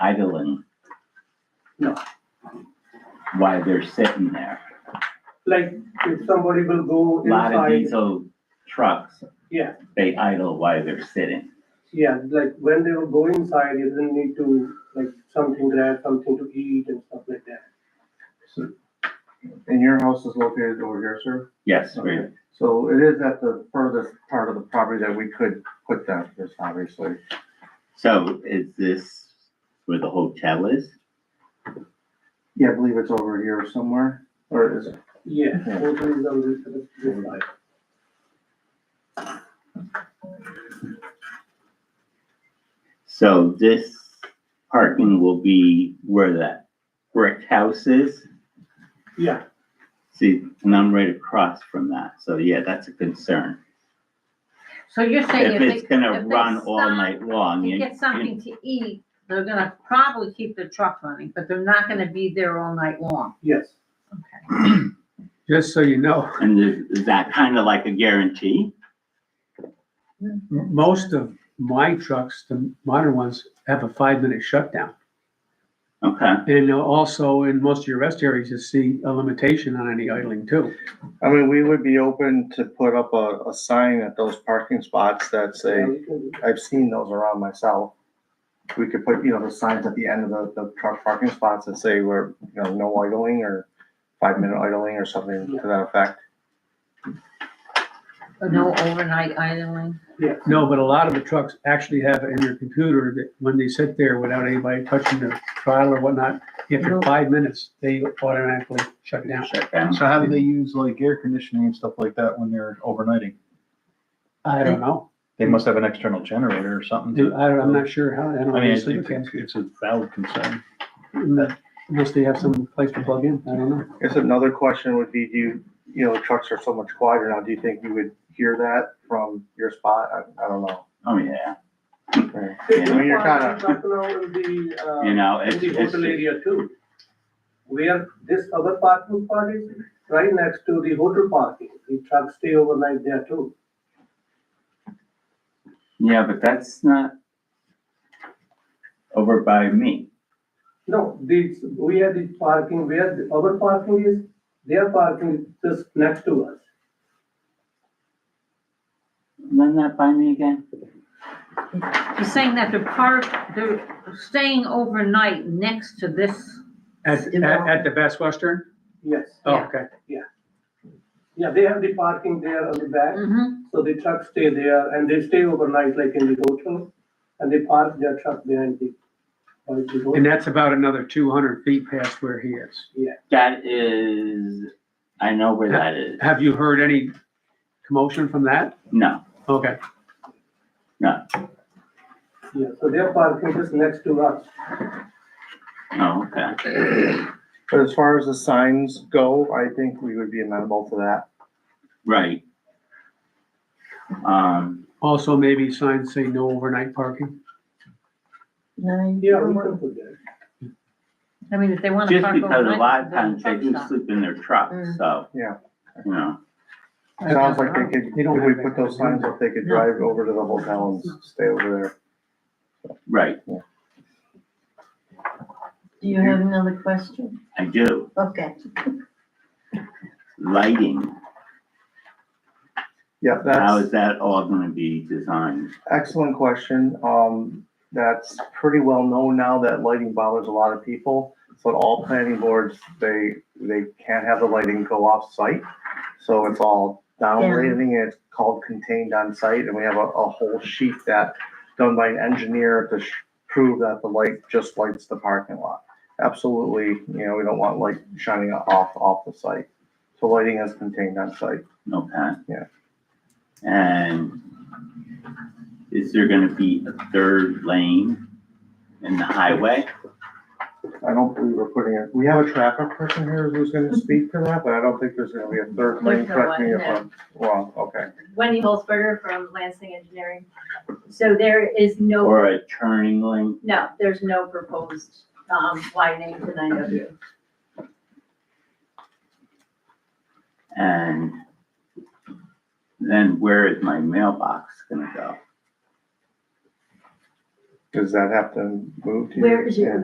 idling? No. While they're sitting there, Like, if somebody will go a lot of inside, diesel trucks, yeah, they idle while they're sitting. yeah, like when they will go inside, you will need to, like, something grab, something to eat and stuff like that. So, And your house is located over here, sir? Yes, we, Okay. So it is at the furthest part of the property that we could put that, this obviously. so is this where the hotel is? Yeah, I believe it's over here somewhere, or is it? Yeah, Yeah. hotel is on this, this side. So this parking will be where that brick house is? Yeah, See, and I'm right across from that, so yeah, that's a concern. So you're saying If if it's they, gonna if run stop all night long, to you, get something to eat, they're gonna probably keep the truck running, but they're not gonna be there all night long. yes, Just so you know, and is is that kind of like a guarantee? most of my trucks, the modern ones, have a five-minute shutdown. Okay, And also in most of your rest areas, you see a limitation on any idling too. I mean, we would be open to put up a, a sign at those parking spots that say, yeah, we can do that. I've seen those around myself. We could put, you know, the signs at the end of the, the truck parking spots that say we're, you know, no idling or five minute idling or something to that effect. No overnight idling. No, but a lot of the trucks actually have it in your computer that when they sit there without anybody touching the throttle or whatnot, after No. five minutes, they automatically shut down. shut down. So how do they use like air conditioning and stuff like that when they're overnighting? I don't know. They must have an external generator or something. Do- to- I don't, I'm not sure how, I don't I know. mean, They it's, sleep in it's it's a valid concern. the- Unless they have some place to plug in, I don't know. Guess another question would be, do you, you know, trucks are so much quieter now, do you think you would hear that from your spot? I, I don't know. Oh, yeah, It's Yeah. I mean, you're required kinda- truck now in the, uh, you know, in it's, the it's, hotel area too. Where this other parking spot is, right next to the hotel parking, the trucks stay overnight there too. yeah, but that's not over by me. No, these, we have the parking where the- our parking is, their parking is just next to us. Run that by me again? You're saying that they're part, they're staying overnight next to this, At, at, at the Best Western? Yes, Oh, Yeah. Okay. yeah, they have the parking there on the back, Mm-hmm. Mhm. so the trucks stay there and they stay overnight like in the hotel. And they park their truck behind the, by the And hotel. that's about another two hundred feet past where he is. That is, I know where that is. Have you heard any commotion from that? No, Okay, yeah, so their parking is next to us. oh, okay. But as far as the signs go, I think we would be amenable to that. Right. Um, also maybe signs say no overnight parking. Yeah, we can put that. I mean, if they wanna just park because a lot overnight, of they can times they truck do stop. sleep in their truck, Mm. so. Yeah. You know, Sounds like they could, They don't if we have that put those kind of signs up, they could drive over to the hotel and stay over there. right, Do you have another question? I do. Okay, Lighting, Yeah, that's. how is that all gonna be designed? Excellent question. Um, that's pretty well known now that lighting bothers a lot of people. So at all planning boards, they, they can't have the lighting go off site. So it's all downrating, and it's called contained on site, and we have a, a whole sheet that done by an engineer to sh- prove that the light just lights the parking lot. Absolutely, you know, we don't want light shining off, off the site. So lighting is contained on site. Okay. Yeah. And is there gonna be a third lane in the highway? I don't believe we're putting it, we have a traffic person here who's gonna speak to that, but I don't think there's gonna be a third Mm-hmm. lane, There's no correct me one, if I'm wrong, okay. Wendy Holzberger from Lansing Engineering. So there is no, Or a turning lane? no, there's no proposed, um, widening to nine W. And then where is my mailbox gonna go? Does that have to move to? your- Where is your, Yeah.